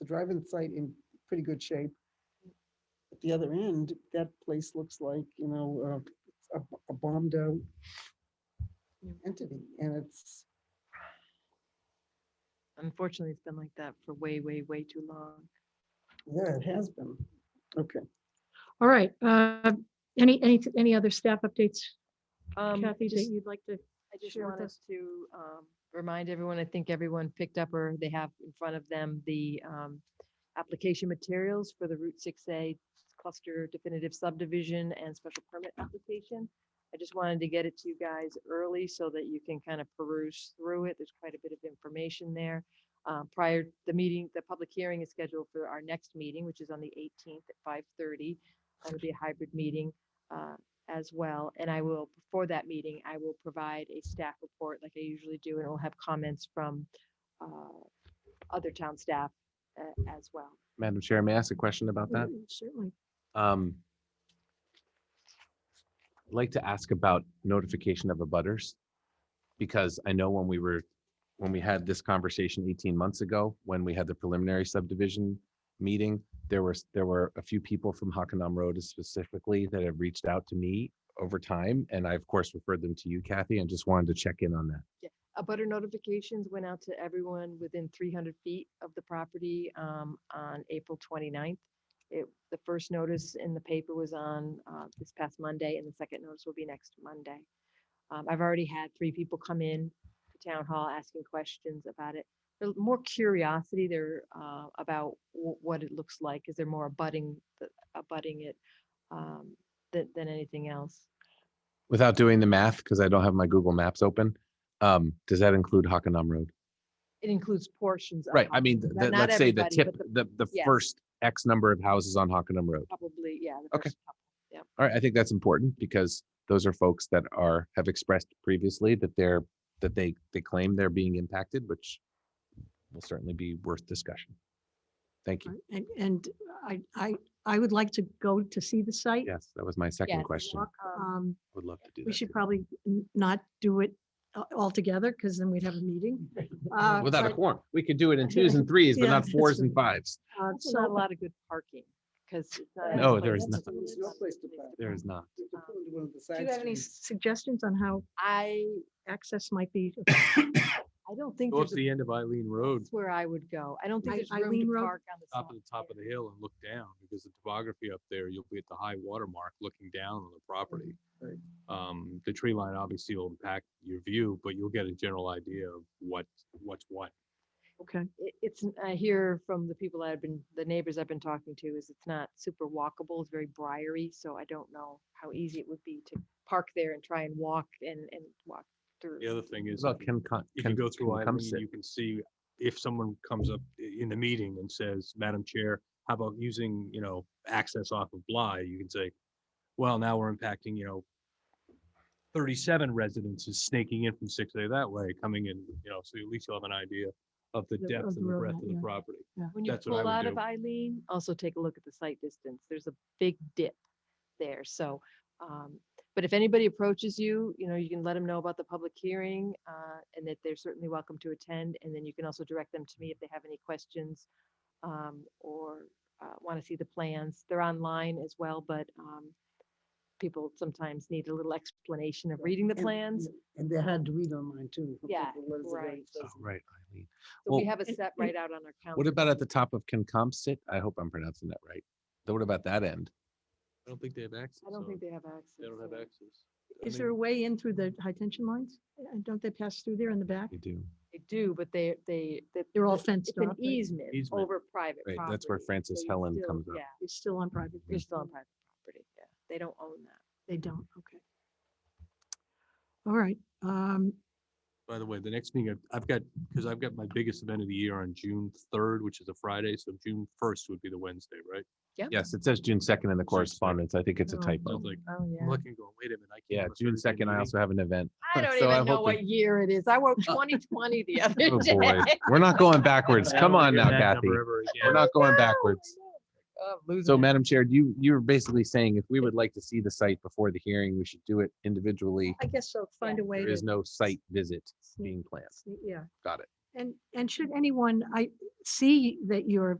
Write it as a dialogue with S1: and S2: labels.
S1: the drive-in site in pretty good shape. At the other end, that place looks like, you know, uh, a- a bombed out entity and it's,
S2: Unfortunately, it's been like that for way, way, way too long.
S1: yeah, it has been. Okay.
S3: Um, All right. uh, Any, any, any other staff updates,
S2: Um,
S3: Kathy, that
S2: just-
S3: you'd like to?
S2: I just
S3: share with
S2: want us to um, remind everyone, I think everyone picked up or they have in front of them the um, application materials for the Route 6A cluster definitive subdivision and special permit application. I just wanted to get it to you guys early so that you can kind of peruse through it. There's quite a bit of information there. Uh, Prior, the meeting, the public hearing is scheduled for our next meeting, which is on the 18th at 5:30. That'll be a hybrid meeting. Uh, as well. And I will, before that meeting, I will provide a staff report like I usually do, and it will have comments from uh, other town staff uh, as well.
S4: Madam Chair, may I ask a question about that?
S3: Mm, Certainly.
S4: Um, I'd like to ask about notification of abutters. Because I know when we were, when we had this conversation eighteen months ago, when we had the preliminary subdivision meeting, there was, there were a few people from Hockanum Road specifically that have reached out to me over time, and I of course referred them to you, Kathy, and just wanted to check in on that.
S2: A uh, butter notifications went out to everyone within 300 feet of the property um, on April 29th. It, the first notice in the paper was on uh, this past Monday, and the second notice will be next Monday. Um, I've already had three people come in to town hall asking questions about it. There's more curiosity there uh, about wh- what it looks like, is there more abutting, the- abutting it um, than, than anything else?
S4: Without doing the math, because I don't have my Google Maps open, um, does that include Hockanum Road?
S2: It includes portions of.
S4: Right, I
S2: Hockanum,
S4: mean, th-
S2: not-
S4: th-
S2: not
S4: let's say the
S2: everybody,
S4: tip,
S2: but the-
S4: the, the
S2: yes.
S4: first X number of houses on Hockenham Road.
S2: Probably, yeah. the
S4: Okay.
S2: first couple.
S4: All right, I think that's important because those are folks that are, have expressed previously that they're, that they, they claim they're being impacted, which will certainly be worth discussion. Thank you.
S3: Right, And, and I, I, I would like to go to see the site.
S4: Yes, that was my second
S2: Yes,
S4: question.
S3: walk,
S2: Um,
S3: Um,
S4: Would love to do
S3: We
S4: that.
S3: should
S4: too.
S3: probably n- not do it a- altogether because then we'd have a meeting. Uh,
S4: Without a
S3: but,
S4: quorum, we could do it in twos and threes, but
S3: Yeah,
S4: not
S3: that's
S4: fours and
S3: true.
S4: fives.
S3: uh,
S2: Also
S3: So
S2: Not a lot of good parking, because.
S4: No, there is not.
S1: There's no place to park.
S4: There is not.
S1: You could put it to one of the
S3: do you
S1: side
S3: have any
S1: streets.
S3: suggestions on how
S2: I,
S3: access might be?
S2: I don't think there's, a-
S5: end of Eileen Road,
S2: that's where I would go. I don't think
S3: I-
S2: there's room
S3: Eileen
S2: to
S3: Road?
S2: park on the side.
S5: of the hill and look down, because the topography up there, you'll be at the high water mark looking down on the property.
S1: Right.
S5: Um, the tree line obviously will impact your view, but you'll get a general idea of what, what's what.
S3: Okay.
S2: It, it's, I hear from the people I've been, the neighbors I've been talking to, is it's not super walkable, it's very briary, so I don't know how easy it would be to park there and try and walk and, and walk through.
S5: The other thing is,
S4: Well,
S5: if you-
S4: can, con-
S5: if
S4: can-
S5: you go through
S4: can come
S5: Eileen,
S4: sit.
S5: you can see if someone comes up i- in the meeting and says, Madam Chair, how about using, you know, access off of Bly? You can say, well, now we're impacting, you know, thirty-seven residences snaking in from six A that way, coming in, you know, so at least you'll have an idea of the
S3: The-
S5: depth
S3: of
S5: and
S3: the
S5: the
S3: road
S5: breadth
S3: map,
S5: of the
S3: yeah.
S5: property.
S2: When you
S5: That's what I
S2: pull
S5: would
S2: out of
S5: do.
S2: Eileen, also take a look at the site distance. There's a big dip there, so. um, But if anybody approaches you, you know, you can let them know about the public hearing uh, and that they're certainly welcome to attend. And then you can also direct them to me if they have any questions um, or want to see the plans. They're online as well, but um, people sometimes need a little explanation of reading the
S1: And-
S2: plans.
S1: And they're hard to read online too.
S2: Yeah,
S1: What is it that it
S2: right.
S1: says?
S4: Oh, Right, Eileen.
S2: So we
S4: Well,
S2: have a
S3: and-
S2: set right out on our calendar.
S4: What about at the top of Concomsit? I hope I'm pronouncing that right. Though What about that end?
S5: I don't think they have access.
S2: I don't
S5: on
S2: think
S5: it.
S2: they have access.
S5: They don't have
S2: yeah.
S5: access. I
S3: Is there a
S5: mean,
S3: way in through the high tension lines? Uh, Don't they pass through there in the back?
S4: You do.
S2: They do, but they, they. that-
S3: They're all
S2: that-
S3: fenced
S2: It's an
S3: off. right?
S2: easement
S5: Easement.
S2: over private
S4: Right,
S2: property.
S4: that's where Francis
S2: so you
S4: Helen
S2: still-
S4: comes up. Hmm.
S2: Yeah,
S3: You're still on private.
S2: you're
S3: property.
S2: still on private property, yeah. They don't own that.
S3: They don't, okay. All right, um,
S5: By the way, the next thing I've- I've got, because I've got my biggest event of the year on June third, which is a Friday, so June first would be the Wednesday, right?
S4: Yes, it says June second in the
S5: June 2nd.
S4: correspondence. I think it's a
S3: Oh.
S5: So
S4: typo.
S5: it's like,
S2: Oh,
S5: I'm looking, and going, wait a minute. I can't
S4: Yeah,
S5: must
S4: June
S5: already been
S4: second, I
S5: meeting."
S4: also have an event.
S2: I don't
S4: So
S2: even
S4: I'm
S2: know what
S4: hoping-
S2: year it is. I wrote twenty twenty the other
S4: Oh, boy.
S2: day.
S4: We're not going backwards.
S5: I don't
S4: Come
S5: wanna
S4: on
S5: hear
S4: now,
S5: that
S4: Kathy.
S5: number ever
S4: We're
S5: again.
S4: not going
S2: No, I
S4: backwards.
S2: know. Oh, I'm losing
S4: So
S2: it.
S4: Madam Chair, you, you were basically saying if we would like to see the site before the hearing, we should do it individually.
S3: I guess so, find a way
S4: There
S3: to,
S4: is no site visit
S3: sneak-
S4: being planned.
S3: sneak- yeah.
S4: Got it.
S3: And, and should anyone, I see that you're